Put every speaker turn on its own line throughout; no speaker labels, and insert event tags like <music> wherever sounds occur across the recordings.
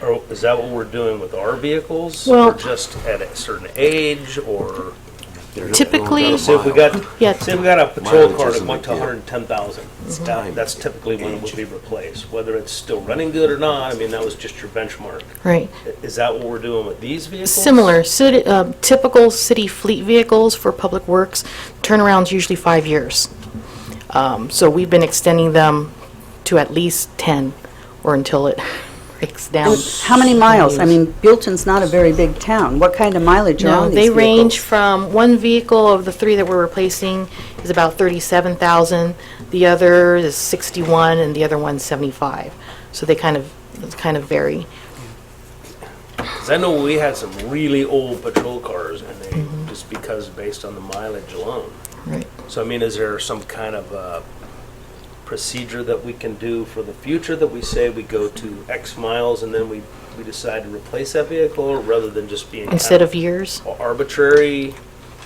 Or- or Is that what we're doing with our vehicles?
Well-
Or just at a certain age, or,
Typically-
see if we got,
Yeah. Mhm.
see if we got a patrol
Mileage
car that
isn't
went to
ideal.
110,000.
time.
That's typically when it would be replaced, whether it's still running good or not, I mean, that was just your benchmark.
Right.
I- Is that what we're doing with these vehicles?
Similar, city- uh, typical city fleet vehicles for public works, turnaround's usually five years. Um, So we've been extending them to at least 10, or until it <laughs> breaks down.
How many miles? I mean, Buellton's not a very big town. What kind of mileage are
No,
on these
they range
vehicles?
from, one vehicle of the three that we're replacing is about 37,000, the other is 61, and the other one's 75. So they kind of, kind of vary.
'Cause I know we had some really old patrol cars, and they,
Mm-hmm.
just because, based on the mileage alone.
Right.
So I mean, is there some kind of uh procedure that we can do for the future that we say we go to X miles and then we, we decide to replace that vehicle rather than just being kind
Instead of years.
arbitrary?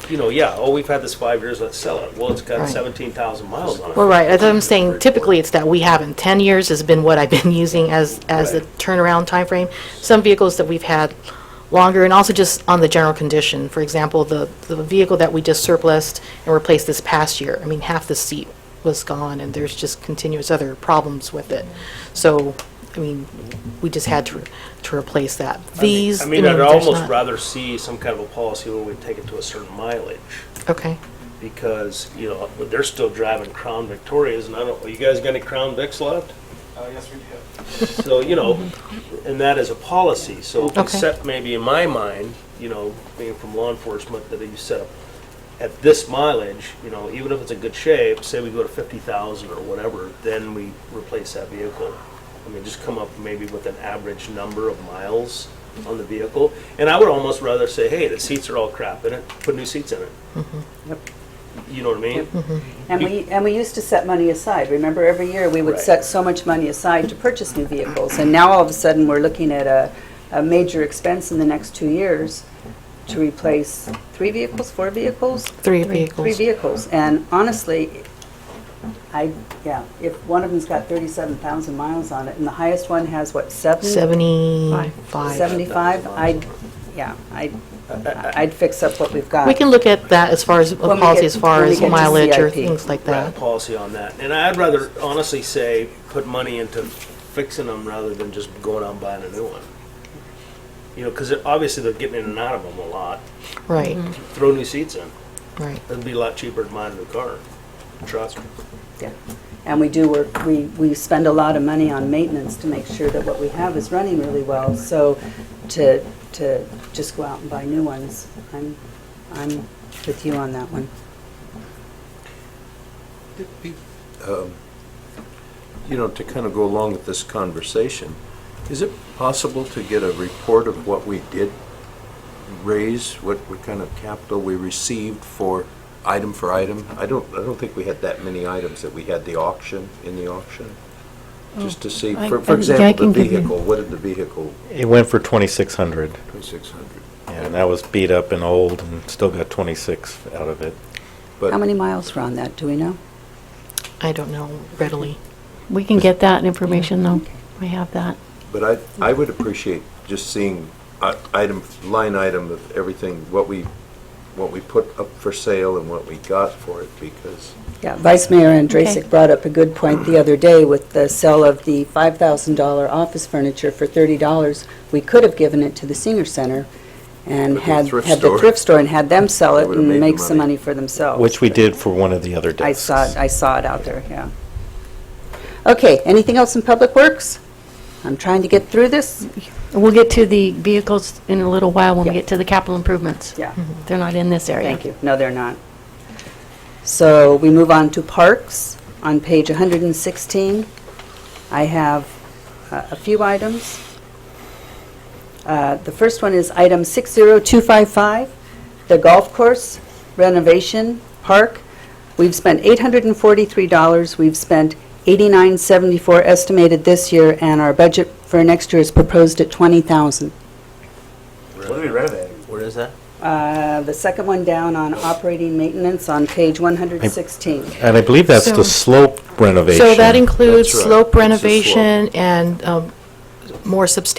You know, yeah, oh, we've had this five years, let's sell it. Well, it's got
Right.
seventeen thousand miles on it.
Well, right, as I'm saying, typically it's that we haven't. 10 years has been what I've been <laughs> using as, as the
Right.
turnaround timeframe. Some vehicles that we've had longer, and also just on the general condition. For example, the, the vehicle that we just surplused and replaced this past year, I mean, half the seat was gone, and there's just continuous other problems with it. So, I mean, we just had to, to replace that. These,
I
I
mean,
mean,
I'd
there's
almost
not.
rather see some kind of a policy where we take it to a certain mileage.
Okay,
because, you know, they're still driving Crown Victorias, and I don't, are you guys got any Crown Vics left? Uh, yes, we do. So, you know, and that is a policy, so if we
Okay.
set maybe in my mind, you know, being from law enforcement, that you set up at this mileage, you know, even if it's in good shape, say we go to fifty thousand or whatever, then we replace that vehicle. I mean, just come up maybe with an average number of miles on the vehicle, and I would almost rather say, hey, the seats are all crap in it, put new seats in it. You know what I mean?
And we, and we used to set money aside. Remember, every year, we would
Right.
set so much money aside to purchase new vehicles. And now, all of a sudden, we're looking at a, a major expense in the next two years to replace three vehicles, four vehicles?
three
Three
vehicles.
vehicles, and honestly, I, yeah, if one of them's got 37,000 miles on it, and the highest one has, what, seven?
75.
75, I'd, yeah, I'd, I'd fix up what we've got.
We can look at that as far as a
Uh, When we
policy,
get-
as far
when we
as
get to
mileage or
CIP.
things like that.
Right, Policy on that. And I'd rather honestly say, put money into fixing them rather than just going out and buying a new one. You know, because obviously they're getting in and out of them a lot.
Right,
Throw new seats in.
right.
It'd be a lot cheaper to buy a new car. Trust me.
Yeah. And we do work, we, we spend a lot of money on maintenance to make sure that what we have is running really well, so to, to just go out and buy new ones, I'm, I'm with you on that one.
Um, You know, to kind of go along with this conversation, is it possible to get a report of what we did raise, what, what kind of capital we received for item for item? I don't, I don't think we had that many items that we had the auction, in the auction, just to see, for, for
Oh, I- I- yeah, I
example,
can
the
give you-
vehicle, what did the vehicle,
It went for 2,600,
2,600?
and that was beat up and old, and still got 26 out of it.
But-
How many miles were on that, do we know?
I don't know readily.
We can get that information, though. We have that.
But I, I would appreciate just seeing i- item, line item of everything, what we, what we put up for sale and what we got for it, because
Yeah, Vice Mayor
Okay.
Andrasik brought up a good point the other day with the sale of the $5,000 office furniture for $30. We could have given it to the senior center and
Or the
had,
thrift
had the
store.
thrift store and had them sell
They
it
would've
and
made the
make some
money.
money for themselves.
Which we did for one of the other
Oh, I
desks.
saw, it. I saw it out there, yeah. Okay, anything else in Public Works? I'm trying to get through this.
We'll get to the vehicles in a little while when we
Yeah.
get to the capital improvements.
Yeah.
They're not in this area.
Thank you. No, they're not. So we move on to parks. On page 116, I have uh, a few items. Uh, The first one is item 60255, the golf course renovation park. We've spent $843. We've spent $89.74 estimated this year, and our budget for next year is proposed at $20,000.
What are we renovating?
Where is that?
Uh, The second one down on operating maintenance on page 116.
And I believe that's
So-
the slope renovation.
So that includes
That's right.
slope
It's a slope.
renovation and um, more substantial